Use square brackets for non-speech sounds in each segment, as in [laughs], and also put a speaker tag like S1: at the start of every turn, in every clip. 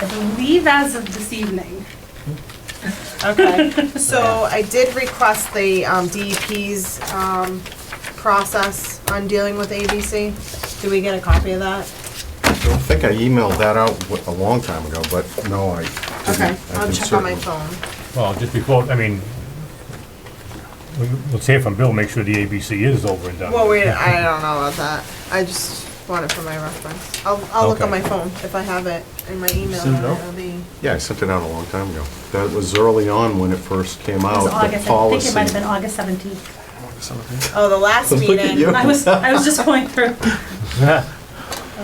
S1: I believe as of this evening.
S2: Okay, so I did request the um, DEP's um, process on dealing with ABC. Do we get a copy of that?
S3: I don't think I emailed that out w- a long time ago, but no, I didn't.
S2: Okay,
S3: I
S2: I'll
S3: can
S2: check on my
S3: certainly-
S2: phone.
S4: Well, just before, I mean, we- let's hear from Bill, make sure the ABC is over and done.
S2: Well,
S4: [laughs] with.
S2: wait, I don't know about that. I just want it for my reference. I'll, I'll look on
S4: Okay.
S2: my phone if I have it in my email.
S5: Send it out?
S2: It'll be,
S3: Yeah, I sent it out a long time ago. That was early on when it first came
S1: It was
S3: out, Oh, the
S1: August, I think
S3: policy.
S1: it might have been August 17th.
S2: oh, the last
S3: [laughs] Look at
S2: meeting.
S3: you.
S1: I was, I was just going
S3: [laughs]
S1: through.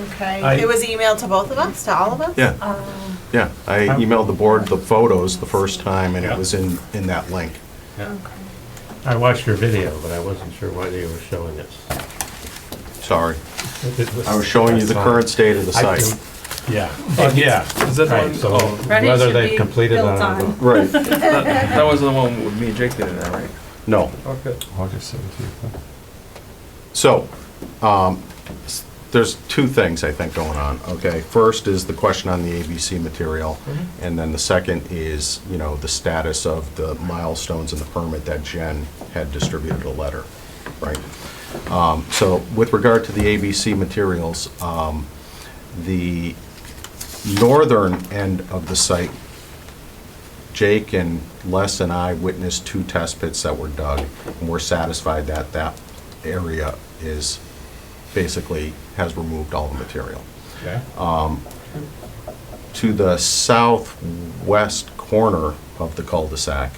S2: Okay.
S5: I-
S2: It was emailed to both of us, to all of us?
S3: Yeah,
S1: Um,
S3: yeah. I emailed the board the photos the first time, and
S4: Yeah.
S3: it was in, in that link.
S5: Yeah. I watched your video, but I wasn't sure why they were showing this.
S3: Sorry. I was showing you the current state of the
S5: I
S3: site.
S5: do- Yeah, Oh, yeah.
S6: [laughs] Is that
S5: Right,
S6: one-
S5: so
S6: oh.
S1: Ready
S5: whether
S1: should
S5: they've
S1: be
S5: completed it or
S1: built
S5: not.
S1: on.
S3: [laughs] Right.
S6: That that was the one with me and Jake did it, all right?
S3: No.
S6: Okay.
S7: August 17th. huh?
S3: So, um, s- there's two things, I think, going on, okay? First is the question on the ABC material, and then the second is, you know, the status of the milestones in the permit that Jen had distributed a letter, right? Um, So, with regard to the ABC materials, um, the northern end of the site, Jake and Les and I witnessed two test pits that were dug, and we're satisfied that that area is, basically, has removed all the material.
S4: Okay.
S3: Uh, To the southwest corner of the cul-de-sac,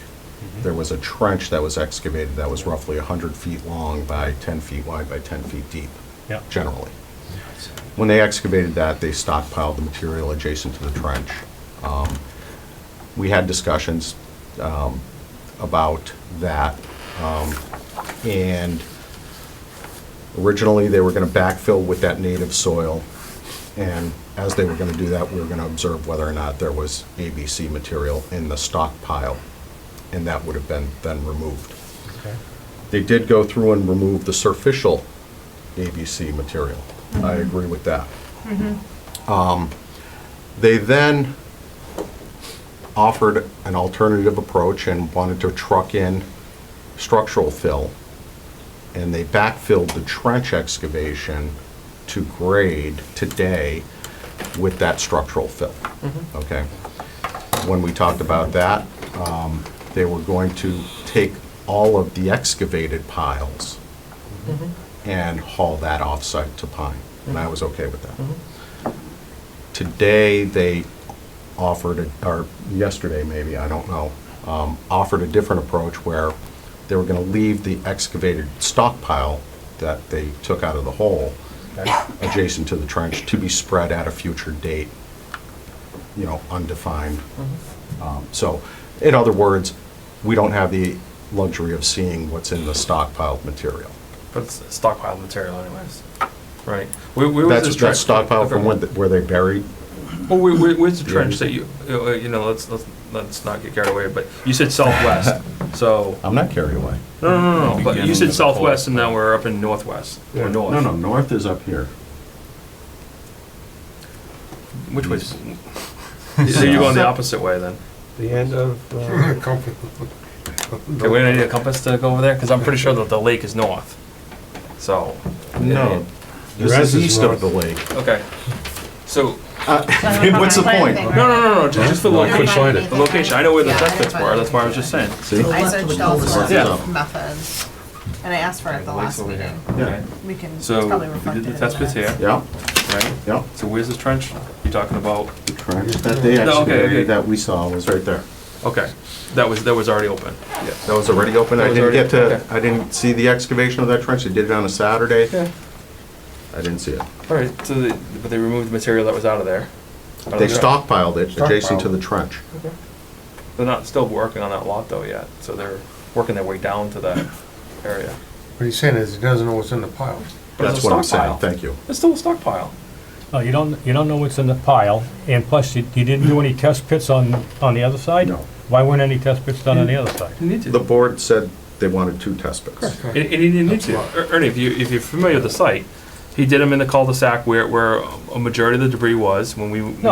S3: there was a trench that was excavated that was roughly 100 feet long by 10 feet wide by 10 feet deep,
S4: Yeah.
S3: generally. When they excavated that, they stockpiled the material adjacent to the trench. Um, We had discussions um, about that, um, and originally, they were going to backfill with that native soil, and as they were going to do that, we were going to observe whether or not there was ABC material in the stockpile, and that would have been then removed.
S4: Okay.
S3: They did go through and remove the surficial ABC material. I agree with that. Um, They then offered an alternative approach and wanted to truck in structural fill, and they backfilled the trench excavation to grade today with that structural fill. Okay? When we talked about that, um, they were going to take all of the excavated piles and haul that offsite to Pine, and I was okay with that. Today, they offered, a- or yesterday maybe, I don't know, um, offered a different approach where they were going to leave the excavated stockpile that they took out of the hole adjacent to the trench to be spread at a future date, you know, undefined. Um, So, in other words, we don't have the luxury of seeing what's in the stockpiled material.
S6: But it's stockpiled material anyways, right? Where, where was
S3: That's
S6: this
S3: that's
S6: trench?
S3: stockpiled from when th- where they buried
S6: Well, where, where- where's the
S3: Yeah.
S6: trench that you, uh, uh, you know, let's, let's, let's not get carried away, but you said
S3: [laughs]
S6: southwest, so,
S3: I'm not carried away.
S6: no, no, no, no, but
S7: Begin
S6: you said
S7: with the pole.
S6: southwest and now we're up in northwest, or north.
S3: No, no, north is up here.
S6: Which way?
S3: [laughs]
S6: So you're going the opposite way then?
S5: The end of,
S3: [laughs]
S5: uh,
S6: Okay, we don't need a compass to go over there, because I'm pretty sure that the lake is north, so.
S3: No,
S7: The
S3: this
S7: rest
S3: is
S7: is
S3: east of
S7: north.
S3: the lake.
S6: Okay, so,
S3: What's the point?
S6: no, no, no, no, ju- just the
S7: No, I
S6: location.
S7: couldn't find it.
S6: The location, I know where the
S2: Yeah, I
S6: test
S2: didn't
S6: pits
S2: find
S6: were,
S2: it.
S6: that's why I was just saying.
S3: See?
S2: I searched all sorts of
S6: Yeah.
S2: methods, and I asked for it at the
S6: Lights
S2: last
S6: over here.
S2: meeting.
S6: Okay.
S2: We can, it's
S6: So,
S2: probably
S6: we
S2: reflected
S6: did
S2: in
S6: the test pits
S2: minutes.
S6: here,
S3: Yeah,
S6: right?
S3: yeah.
S6: So where's the trench you're talking about?
S3: The trench that they
S6: No, okay, okay.
S3: excavated that we saw was right there.
S6: Okay, that was, that was already open.
S3: That was already open.
S6: That
S3: I
S6: was
S3: didn't
S6: already-
S3: get to,
S6: okay.
S3: I didn't see the excavation of that trench. They did it on a Saturday. I didn't see it.
S6: All right, so, they- but they removed the material that was out of there. Out of
S3: They
S6: the-
S3: stockpiled it adjacent to the trench.
S6: They're not still working on that lot though yet, so they're working their way down
S3: [coughs]
S6: to that area.
S8: What he's saying is he doesn't know what's in the pile.
S6: But it's
S3: That's
S6: a
S3: what I'm
S6: stockpile.
S3: saying. Thank you.
S6: It's still a stockpile.
S4: No, Oh, you don't, you don't know what's in the pile, and plus, you you didn't do any test pits on, on the other side?
S3: No.
S4: Why weren't any test pits done on
S1: Mm.
S4: the other side?
S6: You need
S3: The
S6: to.
S3: board said they wanted two test pits.
S6: And, and you need to. Er- Ernie, if you, if you're familiar with the site, he did them in the cul-de-sac where, where a majority of the debris was when we.